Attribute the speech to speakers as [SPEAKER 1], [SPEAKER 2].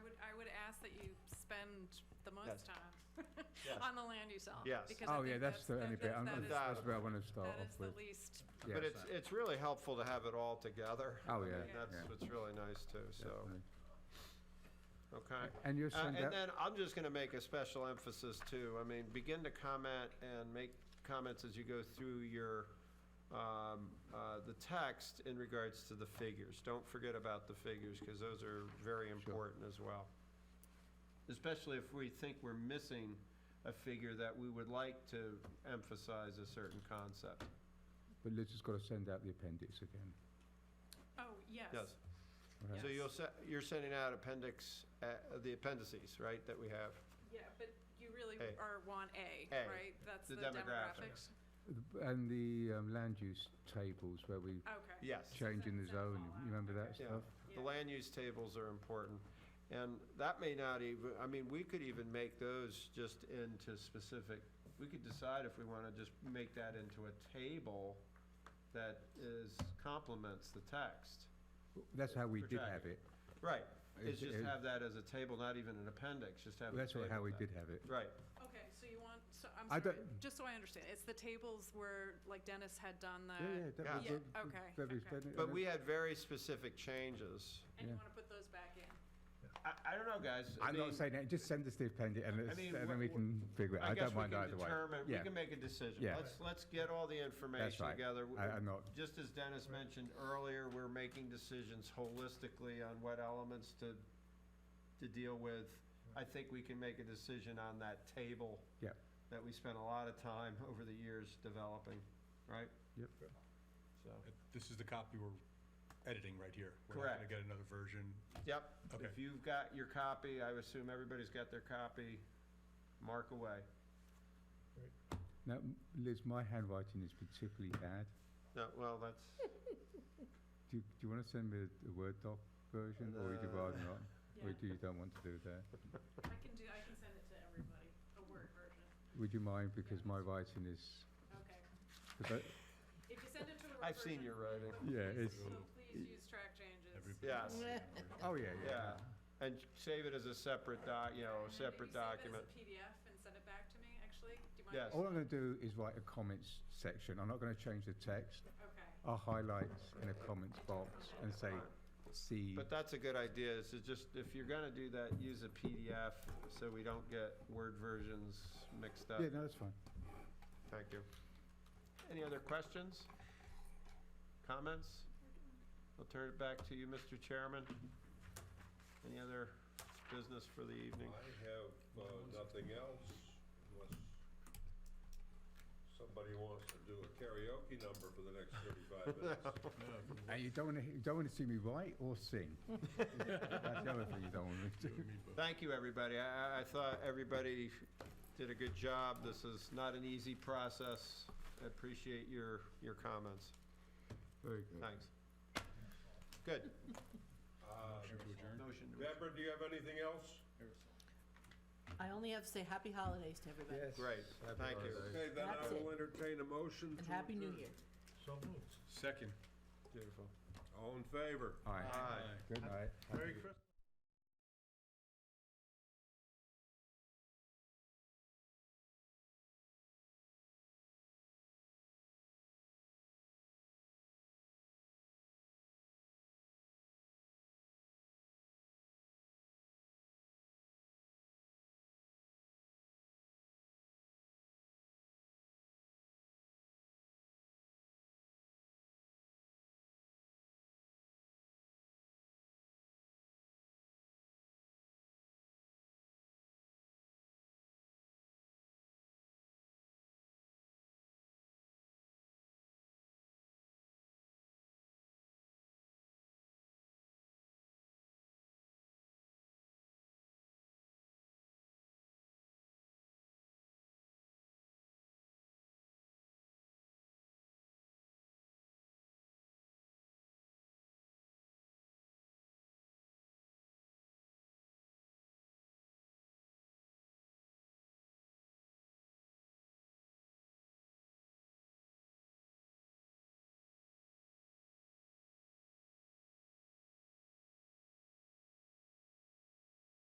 [SPEAKER 1] spend the
[SPEAKER 2] Yes.
[SPEAKER 1] most time
[SPEAKER 2] Yes.
[SPEAKER 1] on the land use element.
[SPEAKER 2] Yes.
[SPEAKER 1] because I
[SPEAKER 3] Oh, yeah,
[SPEAKER 1] think
[SPEAKER 3] that's the,
[SPEAKER 1] that-
[SPEAKER 3] any,
[SPEAKER 1] that-
[SPEAKER 3] I'm-
[SPEAKER 1] that is-
[SPEAKER 3] that's where I wanted to start
[SPEAKER 1] That is
[SPEAKER 3] off
[SPEAKER 1] the
[SPEAKER 3] with.
[SPEAKER 1] least,
[SPEAKER 2] But
[SPEAKER 3] Yes,
[SPEAKER 2] it's, it's really helpful to have it all together.
[SPEAKER 3] Oh,
[SPEAKER 2] I mean,
[SPEAKER 3] yeah,
[SPEAKER 2] That's
[SPEAKER 3] yeah.
[SPEAKER 2] what's really nice too, so,
[SPEAKER 3] definitely.
[SPEAKER 2] okay.
[SPEAKER 3] And you'll
[SPEAKER 2] Uh,
[SPEAKER 3] send
[SPEAKER 2] And
[SPEAKER 3] that,
[SPEAKER 2] then I'm just going to make a special emphasis too. I mean, begin to comment and make comments as you go through your, um, uh, the text in regards to the figures. Don't forget about the figures because those are very important as well. Especially if we think we're missing a figure that we would like to emphasize a certain concept.
[SPEAKER 3] but Liz has got to send out the appendix again.
[SPEAKER 1] oh,
[SPEAKER 2] Yes.
[SPEAKER 1] yes.
[SPEAKER 3] right?
[SPEAKER 2] So
[SPEAKER 1] Yes.
[SPEAKER 2] you'll, se- you're sending out appendix, uh, the appendices, right, that we have?
[SPEAKER 1] Yeah, but you really
[SPEAKER 2] A.
[SPEAKER 1] are want A,
[SPEAKER 2] A,
[SPEAKER 1] right? That's
[SPEAKER 2] the
[SPEAKER 1] the
[SPEAKER 2] demographics.
[SPEAKER 1] demographics.
[SPEAKER 3] And the um, land use tables where we
[SPEAKER 1] Okay.
[SPEAKER 2] Yes.
[SPEAKER 3] changing the
[SPEAKER 1] Send them all
[SPEAKER 3] zoning,
[SPEAKER 1] out.
[SPEAKER 3] you remember that
[SPEAKER 2] Yeah,
[SPEAKER 3] stuff?
[SPEAKER 2] the land use tables are important. And that may not even, I mean, we could even make those just into specific, we could decide if we want to just make that into a table that is, complements the text.
[SPEAKER 3] That's how we
[SPEAKER 2] For
[SPEAKER 3] did have
[SPEAKER 2] tracking.
[SPEAKER 3] it.
[SPEAKER 2] Right, it's
[SPEAKER 3] It-
[SPEAKER 2] just
[SPEAKER 3] it-
[SPEAKER 2] have that as a table, not even an appendix, just have. a
[SPEAKER 3] That's what-
[SPEAKER 2] table
[SPEAKER 3] how we
[SPEAKER 2] that-
[SPEAKER 3] did have it.
[SPEAKER 2] Right,
[SPEAKER 1] Okay, so you want, so I'm
[SPEAKER 3] I
[SPEAKER 1] sorry,
[SPEAKER 3] don't-
[SPEAKER 1] just so I understand, it's the tables where, like Dennis had done the.
[SPEAKER 3] Yeah, yeah.
[SPEAKER 2] Yeah.
[SPEAKER 3] that
[SPEAKER 1] Uh,
[SPEAKER 3] was
[SPEAKER 1] Yeah,
[SPEAKER 3] it.
[SPEAKER 1] okay,
[SPEAKER 3] That was-
[SPEAKER 1] okay.
[SPEAKER 3] that-
[SPEAKER 2] but we had very specific changes.
[SPEAKER 1] And you
[SPEAKER 3] Yeah.
[SPEAKER 1] want to put those back in?
[SPEAKER 2] I, I don't know, guys. I
[SPEAKER 3] I'm not
[SPEAKER 2] mean,
[SPEAKER 3] saying that, just send us the appendix and let's-
[SPEAKER 2] mean,
[SPEAKER 3] and
[SPEAKER 2] what-
[SPEAKER 3] then we can figure it, I
[SPEAKER 2] guess
[SPEAKER 3] don't
[SPEAKER 2] we
[SPEAKER 3] mind
[SPEAKER 2] can
[SPEAKER 3] either way.
[SPEAKER 2] determine- We
[SPEAKER 3] Yeah.
[SPEAKER 2] can make a decision.
[SPEAKER 3] Yeah.
[SPEAKER 2] Let's, let's get all the information
[SPEAKER 3] right.
[SPEAKER 2] together.
[SPEAKER 3] I- I'm not-
[SPEAKER 2] Just as Dennis mentioned earlier, we're making decisions holistically on what elements to, to deal with. I think we can make a decision on that table
[SPEAKER 3] Yeah,
[SPEAKER 2] that we spent a lot of time over the years developing, right?
[SPEAKER 3] yep.
[SPEAKER 2] So,
[SPEAKER 4] This is the copy we're editing right here. We're not
[SPEAKER 2] Correct.
[SPEAKER 4] gonna get another version.
[SPEAKER 2] yep.
[SPEAKER 4] Okay.
[SPEAKER 2] If you've got your copy, I assume everybody's got their copy, mark away.
[SPEAKER 3] Now, Liz, my handwriting is particularly bad.
[SPEAKER 2] No, well, that's,
[SPEAKER 3] Do you, do you want to send me a- a Word doc version or would you
[SPEAKER 2] Uh,
[SPEAKER 3] rather not? Or
[SPEAKER 1] Yeah.
[SPEAKER 3] do you don't want to do that?
[SPEAKER 1] I can do, I can send it to everybody, a Word version.
[SPEAKER 3] Would you mind because my writing is,
[SPEAKER 1] Okay.
[SPEAKER 3] 'cause I-
[SPEAKER 1] If you send it to a Word version.
[SPEAKER 2] I've seen your writing.
[SPEAKER 1] but
[SPEAKER 3] Yeah,
[SPEAKER 1] please-
[SPEAKER 3] it's-
[SPEAKER 1] So please use track changes.
[SPEAKER 4] Everybody-
[SPEAKER 2] yes.
[SPEAKER 3] oh, yeah, yeah.
[SPEAKER 2] Yeah, and save it as a separate doc, you know, a
[SPEAKER 1] And then
[SPEAKER 2] separate document.
[SPEAKER 1] If you save it as a PDF and send it back to me, actually, do you mind?
[SPEAKER 2] Yes.
[SPEAKER 3] All I'm going to do is write a comments section. I'm not going to change the text.
[SPEAKER 1] Okay.
[SPEAKER 3] I'll highlight in a comments box and say, see,
[SPEAKER 2] But that's a good idea, is to just, if you're gonna do that, use a PDF, so we don't get Word versions mixed
[SPEAKER 3] yeah,
[SPEAKER 2] up.
[SPEAKER 3] no, that's fine.
[SPEAKER 2] Thank you. Any other questions? Comments? I'll turn it back to you, Mr. Chairman. Any other business for the evening?
[SPEAKER 5] I have uh, nothing else unless somebody wants to do a karaoke number for the next 35 minutes.
[SPEAKER 3] And you don't want to, you don't want to see me write or sing. That's the other thing you don't want me to do.
[SPEAKER 2] Thank you, everybody. I, I- I thought everybody did a good job. This is not an easy process. I Appreciate your, your comments.
[SPEAKER 3] Very good.
[SPEAKER 2] Thanks. Good.
[SPEAKER 4] Motion to adjourn.
[SPEAKER 2] Motion to
[SPEAKER 5] Uh, Deborah, do you have anything else?
[SPEAKER 6] I only have to say happy holidays to everybody.
[SPEAKER 2] Great, thank you.
[SPEAKER 5] Okay, then I
[SPEAKER 6] That's it.
[SPEAKER 5] will entertain a motion.
[SPEAKER 6] And
[SPEAKER 5] to
[SPEAKER 6] happy new
[SPEAKER 5] adjourn.
[SPEAKER 6] year.
[SPEAKER 4] Second.
[SPEAKER 2] Beautiful.
[SPEAKER 5] All in favor?
[SPEAKER 3] All right,
[SPEAKER 2] Aye.
[SPEAKER 3] good night.
[SPEAKER 5] Merry Christmas.